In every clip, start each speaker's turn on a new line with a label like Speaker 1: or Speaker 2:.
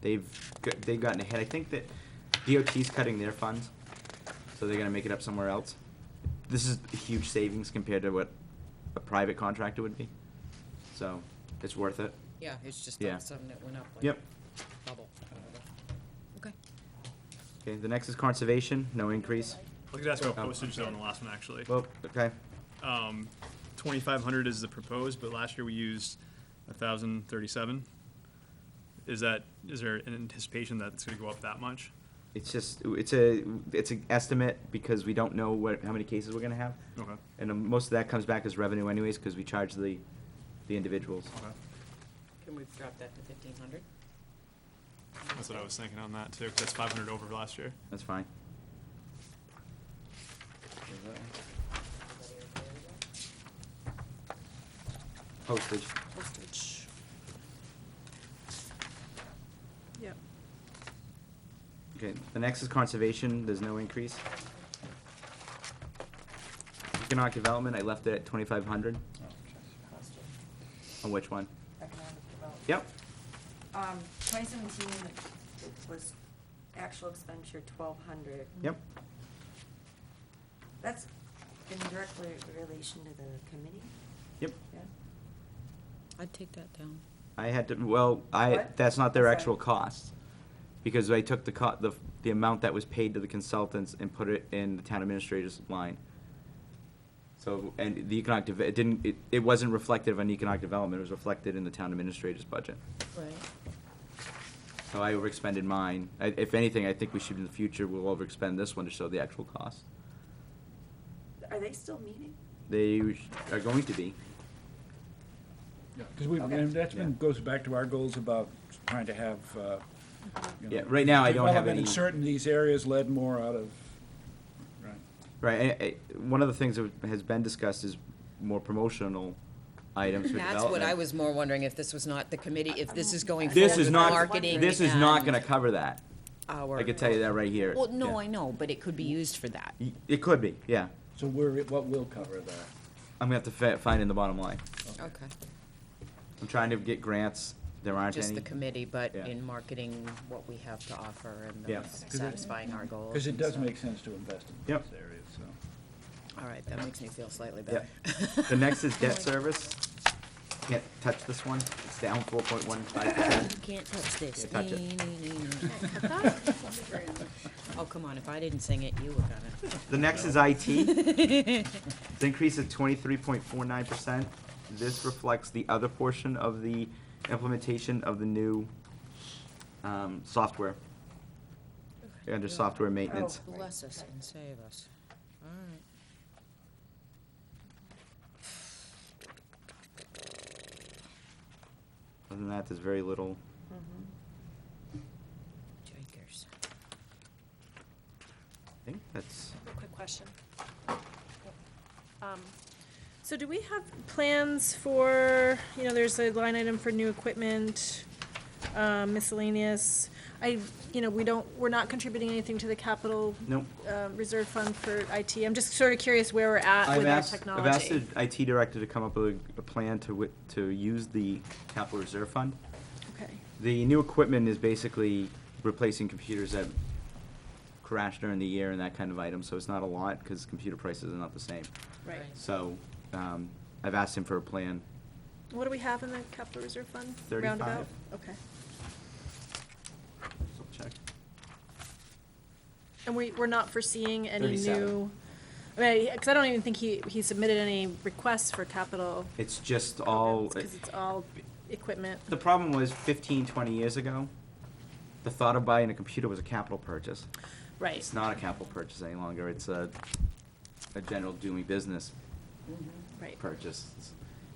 Speaker 1: They've g- they've gotten ahead. I think that DOT's cutting their funds, so they're gonna make it up somewhere else. This is a huge savings compared to what a private contractor would be. So it's worth it.
Speaker 2: Yeah, it's just
Speaker 1: Yeah.
Speaker 2: not something that went up like
Speaker 1: Yep.
Speaker 2: bubble. Okay.
Speaker 1: Okay. The next is conservation. No increase.
Speaker 3: I could ask about
Speaker 1: Oh.
Speaker 3: postage though on the last one, actually.
Speaker 1: Well, okay.
Speaker 3: Um, twenty-five hundred is the proposed, but last year we used a thousand thirty-seven. Is that, is there an anticipation that it's gonna go up that much?
Speaker 1: It's just it's a it's an estimate because we don't know what how many cases we're gonna have,
Speaker 3: Okay,
Speaker 1: and um, most of that comes back as revenue anyways because we charge the the individuals.
Speaker 3: okay.
Speaker 2: Can we drop that to fifteen hundred?
Speaker 3: That's what I was thinking on that too, 'cause that's five hundred over last year.
Speaker 1: That's fine. Postage.
Speaker 2: Postage.
Speaker 4: Yep.
Speaker 1: Okay, the next is conservation, there's no increase. Economic development, I left it at twenty-five hundred. On which one?
Speaker 5: economic development.
Speaker 1: Yep,
Speaker 5: Um, twenty seventeen was actual expenditure twelve hundred.
Speaker 1: yep,
Speaker 5: That's in direct re- relation to the committee,
Speaker 1: yep.
Speaker 5: yeah?
Speaker 2: I'd take that down.
Speaker 1: I had to, well, I,
Speaker 5: What?
Speaker 1: that's not their
Speaker 5: Sorry.
Speaker 1: actual cost. Because I took the co, the, the amount that was paid to the consultants and put it in the town administrator's line. So, and the economic, deve- it didn't, it, it wasn't reflective on economic development, it was reflected in the town administrator's budget.
Speaker 2: Right.
Speaker 1: So I overexpended mine. I, if anything, I think we should in the future, we'll overexpend this one to show the actual cost.
Speaker 5: Are they still meeting?
Speaker 1: They are going to be.
Speaker 6: Because we've,
Speaker 5: Okay.
Speaker 6: and that's been,
Speaker 1: Yeah.
Speaker 6: goes back to our goals about trying to have, uh, you know.
Speaker 1: Yeah, right now I don't have
Speaker 6: development in
Speaker 1: any-
Speaker 6: certain these areas led more out of, right.
Speaker 1: Right, I, I, one of the things that has been discussed is more promotional items for
Speaker 2: That's what I
Speaker 1: development.
Speaker 2: was more wondering, if this was not the committee, if this is going forward
Speaker 1: This is
Speaker 2: with
Speaker 1: not,
Speaker 2: marketing
Speaker 1: this is not
Speaker 2: and
Speaker 1: gonna cover that.
Speaker 2: Our.
Speaker 1: I could tell you that right here.
Speaker 2: Well, no,
Speaker 1: Yeah.
Speaker 2: I know, but it could be used for that.
Speaker 1: Y- It could be, yeah.
Speaker 6: So we're, what will cover that?
Speaker 1: I'm gonna have to fa- find in the bottom line.
Speaker 2: Okay.
Speaker 1: I'm trying to get grants, there aren't
Speaker 2: Just
Speaker 1: any.
Speaker 2: the committee, but
Speaker 1: Yeah.
Speaker 2: in marketing what we have to offer and
Speaker 1: Yeah.
Speaker 2: the
Speaker 1: 'Cause
Speaker 6: it-
Speaker 2: satisfying our goals.
Speaker 6: Because it
Speaker 2: and
Speaker 6: does
Speaker 2: stuff.
Speaker 6: make sense to invest in
Speaker 1: Yep.
Speaker 6: these areas, so.
Speaker 2: All right, that makes me feel slightly better.
Speaker 1: Yep. The next is debt service. Can't touch this one, it's down four point one five percent.
Speaker 2: Can't touch this.
Speaker 1: Yeah, touch it.
Speaker 2: Nee, nee, nee, nee. Oh, come on, if I didn't sing it, you were gonna.
Speaker 1: The next is IT. It's increase of twenty-three point four nine percent. This reflects the other portion of the implementation of the new, um, software, under software maintenance.
Speaker 2: Bless us and save us. All right.
Speaker 1: Other than that, there's very little.
Speaker 2: Jokers.
Speaker 1: I think that's,
Speaker 4: Quick question. Um, So do we have plans for, you know, there's a line item for new equipment, um, miscellaneous. I, you know, we don't, we're not contributing anything to the capital.
Speaker 1: Nope.
Speaker 4: uh, Reserve fund for IT. I'm just sort of curious where we're at Uh, with our
Speaker 1: I've asked
Speaker 4: technology.
Speaker 1: the IT director to come up with a, a plan to wi- to use the capital reserve fund.
Speaker 4: Okay,
Speaker 1: The new equipment is basically replacing computers that crashed during the year and that kind of item, so it's not a lot, cause computer prices are not the same.
Speaker 4: right.
Speaker 2: Right.
Speaker 1: So, um, I've asked him for a plan.
Speaker 4: What do we have in the capital reserve fund?
Speaker 1: 35.
Speaker 4: Roundabout? Okay.
Speaker 1: Check.
Speaker 4: And we, we're not foreseeing any
Speaker 1: 37.
Speaker 4: new, I mean, because I don't even think he, he submitted any requests for capital.
Speaker 1: It's just all,
Speaker 4: Because it's all equipment.
Speaker 1: the problem was fifteen, twenty years ago, the thought of buying a computer was a capital purchase.
Speaker 4: Right,
Speaker 1: It's not a capital purchase any longer, it's a, a general doing business
Speaker 4: right.
Speaker 1: purchase.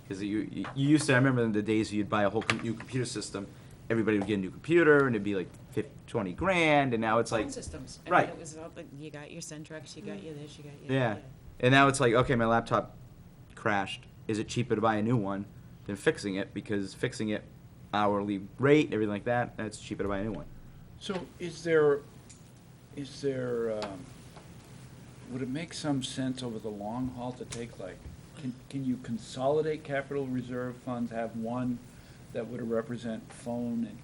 Speaker 1: Because you, you you used to, I remember in the days you'd buy a whole com- new computer system, everybody would get a new computer, and it'd be like fif- twenty grand, and now it's like,
Speaker 2: Phone systems. I mean,
Speaker 1: right.
Speaker 2: It was all, the- you got your Centrex, you got your this, you got your.
Speaker 1: yeah. And now it's like, okay, my laptop crashed, is it cheaper to buy a new one than fixing it, because fixing it hourly rate, everything like that, that's cheaper to buy a new one.
Speaker 6: So is there, is there, um, would it make some sense over the long haul to take like, can, can you consolidate capital reserve funds, have one that would represent phone and